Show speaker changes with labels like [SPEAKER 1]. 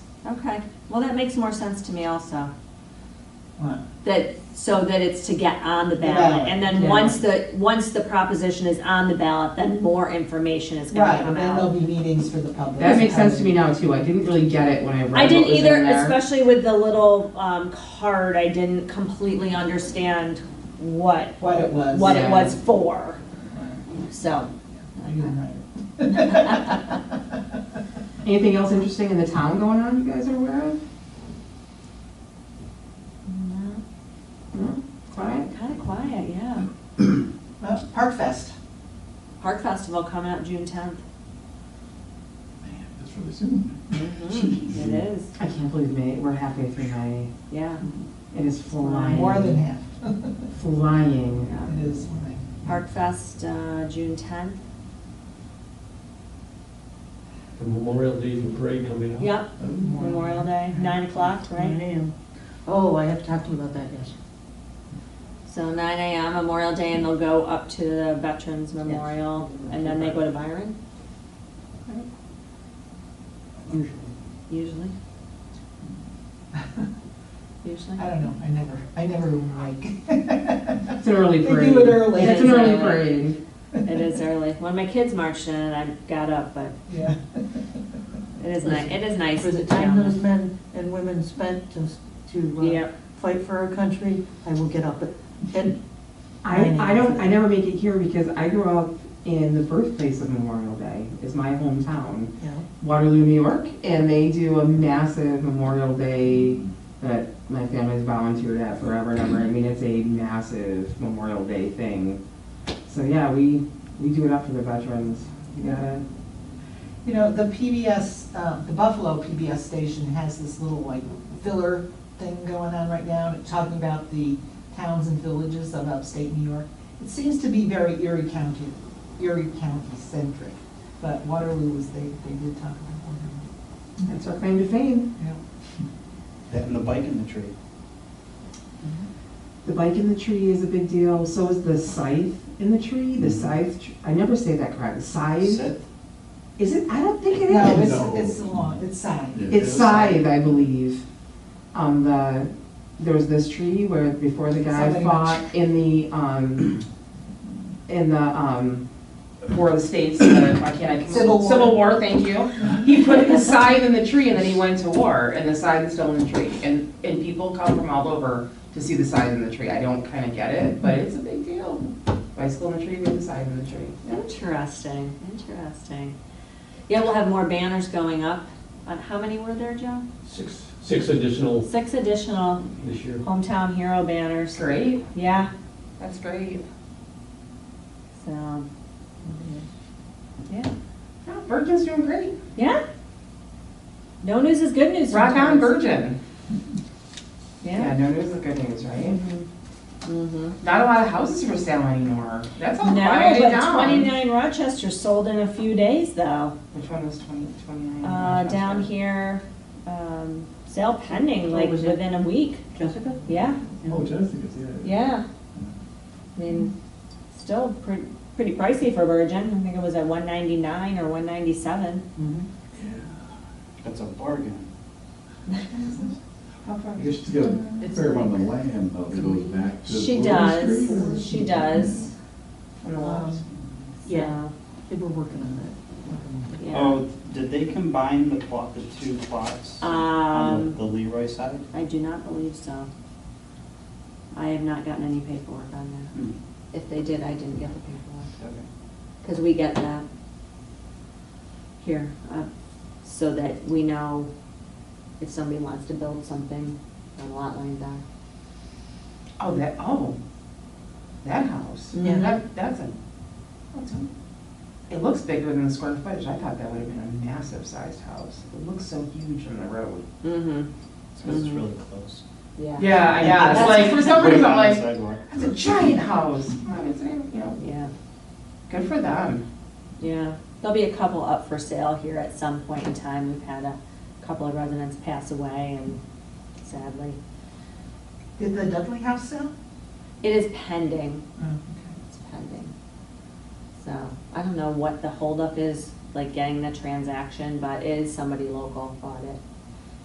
[SPEAKER 1] Well, that makes more sense to me also.
[SPEAKER 2] What?
[SPEAKER 1] That, so that it's to get on the
[SPEAKER 2] The
[SPEAKER 1] ballot.
[SPEAKER 2] ballot,
[SPEAKER 1] And then
[SPEAKER 2] yeah.
[SPEAKER 1] once the, once the proposition is on the ballot, then more information is gonna
[SPEAKER 2] Right,
[SPEAKER 1] come
[SPEAKER 2] and then there'll
[SPEAKER 1] out.
[SPEAKER 2] be meetings for the public.
[SPEAKER 3] That makes sense to me now too. I didn't really get it when I read
[SPEAKER 1] I
[SPEAKER 3] what
[SPEAKER 1] didn't
[SPEAKER 3] was in
[SPEAKER 1] either,
[SPEAKER 3] there.
[SPEAKER 1] especially with the little um, card, I didn't completely understand what,
[SPEAKER 2] What it was.
[SPEAKER 1] what it
[SPEAKER 3] Yeah.
[SPEAKER 1] was for,
[SPEAKER 2] Right.
[SPEAKER 1] so.
[SPEAKER 2] I didn't write it.
[SPEAKER 3] Anything else interesting in the town going on you guys are aware of? No? Quiet?
[SPEAKER 1] Kind of quiet, yeah.
[SPEAKER 2] Well, Park Fest.
[SPEAKER 1] Park Festival coming up June tenth.
[SPEAKER 4] Man, that's really soon.
[SPEAKER 2] Mm-hmm.
[SPEAKER 1] It is,
[SPEAKER 3] I can't believe May, we're halfway through May.
[SPEAKER 1] yeah.
[SPEAKER 3] It is flying.
[SPEAKER 2] More than half.
[SPEAKER 3] Flying.
[SPEAKER 2] It is fine.
[SPEAKER 1] Park Fest, uh, June tenth.
[SPEAKER 5] The Memorial Day and parade coming up.
[SPEAKER 1] Yep, Memorial Day, nine o'clock, right?
[SPEAKER 6] am. Oh, I have to talk to you about that, yes.
[SPEAKER 1] So nine AM, Memorial Day, and they'll go up to the Veterans Memorial, and then they go to Byron,
[SPEAKER 6] Usually.
[SPEAKER 1] usually. Usually.
[SPEAKER 2] I don't know, I never, I never like.
[SPEAKER 3] It's an early parade.
[SPEAKER 2] They do it early.
[SPEAKER 3] It's
[SPEAKER 1] It
[SPEAKER 3] an
[SPEAKER 1] is
[SPEAKER 3] early
[SPEAKER 1] early.
[SPEAKER 3] parade.
[SPEAKER 1] It is early. When my kids marched in, I got up, but
[SPEAKER 2] Yeah.
[SPEAKER 1] it is nice, it is nice.
[SPEAKER 6] For the
[SPEAKER 1] to
[SPEAKER 6] time
[SPEAKER 1] jump.
[SPEAKER 6] those men and women spent to, to uh,
[SPEAKER 1] Yep,
[SPEAKER 6] fight for our country, I will get up at- at
[SPEAKER 3] I, I don't, I never make it here because I grew up in the birthplace of Memorial Day, is my hometown.
[SPEAKER 6] you know,
[SPEAKER 3] Waterloo, New York, and they do a massive Memorial Day that my family's volunteered at forever and ever. I mean, it's a massive Memorial Day thing. So yeah, we, we do it up for the veterans. You gotta,
[SPEAKER 2] You know, the PBS, uh, the Buffalo PBS station has this little like filler thing going on right now, talking about the towns and villages of upstate New York. It seems to be very Erie County, Erie County centric, but Waterloo was, they, they did talk about Waterloo.
[SPEAKER 3] that's our claim to fame.
[SPEAKER 2] Yeah.
[SPEAKER 7] That and the bike in the tree.
[SPEAKER 3] The bike in the tree is a big deal, so is the scythe in the tree, the scythe, tr- I never say that correct, scythe?
[SPEAKER 7] Sit.
[SPEAKER 3] Is it, I don't think it is.
[SPEAKER 2] No,
[SPEAKER 4] No.
[SPEAKER 2] it's, it's long, it's side.
[SPEAKER 3] It's scythe, I believe. Um, the, there was this tree where, before the guy
[SPEAKER 2] Somebody
[SPEAKER 3] fought in the, um, in the, um, War of the States, uh, why can't I? come-
[SPEAKER 2] Civil War.
[SPEAKER 3] Civil War, thank you. He put his scythe in the tree and then he went to war and the scythe is still in the tree. And, and people come from all over to see the scythe in the tree. I don't kinda get it, but it's a big deal. Bicycle in the tree, we have the scythe in the tree.
[SPEAKER 1] interesting, interesting. Yeah, we'll have more banners going up. Uh, How many were there, Joe?
[SPEAKER 5] Six, six additional
[SPEAKER 1] Six additional
[SPEAKER 5] this year.
[SPEAKER 1] hometown hero banners.
[SPEAKER 3] Great,
[SPEAKER 1] Yeah,
[SPEAKER 3] that's great.
[SPEAKER 1] so. Yeah,
[SPEAKER 3] Yeah, Virgin's doing great.
[SPEAKER 1] yeah. No news is good news.
[SPEAKER 3] Rock
[SPEAKER 1] sometimes.
[SPEAKER 3] on, Virgin. Yeah,
[SPEAKER 1] Yeah.
[SPEAKER 3] no news is good news, right?
[SPEAKER 1] Mm-hmm.
[SPEAKER 3] Not a lot of houses for sale anymore. That's all
[SPEAKER 1] No,
[SPEAKER 3] quieted
[SPEAKER 1] but
[SPEAKER 3] down.
[SPEAKER 1] twenty-nine Rochester sold in a few days though.
[SPEAKER 3] Which one was 20, 29?
[SPEAKER 1] Uh, down here, um, sale pending,
[SPEAKER 6] What
[SPEAKER 1] like
[SPEAKER 6] was it?
[SPEAKER 1] within a week.
[SPEAKER 6] Jessica?
[SPEAKER 1] Yeah,
[SPEAKER 4] Oh, Jessica, yeah.
[SPEAKER 1] yeah. I mean, still pretty, pretty pricey for Virgin. I think it was at one ninety-nine or one ninety-seven.
[SPEAKER 7] That's a bargain.
[SPEAKER 2] How far?
[SPEAKER 4] I guess she's got a
[SPEAKER 6] It's
[SPEAKER 4] fair amount of land though that goes back to.
[SPEAKER 1] She
[SPEAKER 4] Willow Street.
[SPEAKER 1] does, she does.
[SPEAKER 3] On the left.
[SPEAKER 6] Yeah.
[SPEAKER 1] So,
[SPEAKER 6] They were working on
[SPEAKER 2] Mm-hmm.
[SPEAKER 6] that.
[SPEAKER 1] Yeah,
[SPEAKER 7] Oh, did they combine the plot, the two plots? On
[SPEAKER 1] Um,
[SPEAKER 7] the- the Leroy side?
[SPEAKER 1] I do not believe so. I have not gotten any paperwork on
[SPEAKER 7] Hmm,
[SPEAKER 1] that. If they did, I didn't get the paperwork.
[SPEAKER 7] okay.
[SPEAKER 1] Because we get that here, uh, so that we know if somebody wants to build something on a lot line back.
[SPEAKER 3] Oh, that, oh, that house. Mm-hmm.
[SPEAKER 1] Yeah.
[SPEAKER 3] That, that's a, that's a, it looks bigger than the square footage. I thought that would have been a massive sized house. It looks so huge from the road.
[SPEAKER 1] Mm-hmm.
[SPEAKER 7] So it's
[SPEAKER 1] Mhm.
[SPEAKER 7] really close.
[SPEAKER 1] Yeah.
[SPEAKER 3] Yeah, Uh, yeah, it's
[SPEAKER 7] That's
[SPEAKER 3] like, for some
[SPEAKER 7] Way
[SPEAKER 3] reason, I'm
[SPEAKER 7] down the
[SPEAKER 3] like,
[SPEAKER 7] sidewalk.
[SPEAKER 3] that's a giant house. Come on, it's, you know,
[SPEAKER 1] Yeah,
[SPEAKER 3] good for them.
[SPEAKER 1] yeah. There'll be a couple up for sale here at some point in time. We've had a couple of residents pass away and sadly.
[SPEAKER 2] Did the Dudley House sell?
[SPEAKER 1] It is pending,
[SPEAKER 2] Oh, okay.
[SPEAKER 1] it's pending. So, I don't know what the holdup is, like getting the transaction, but it is somebody local bought it.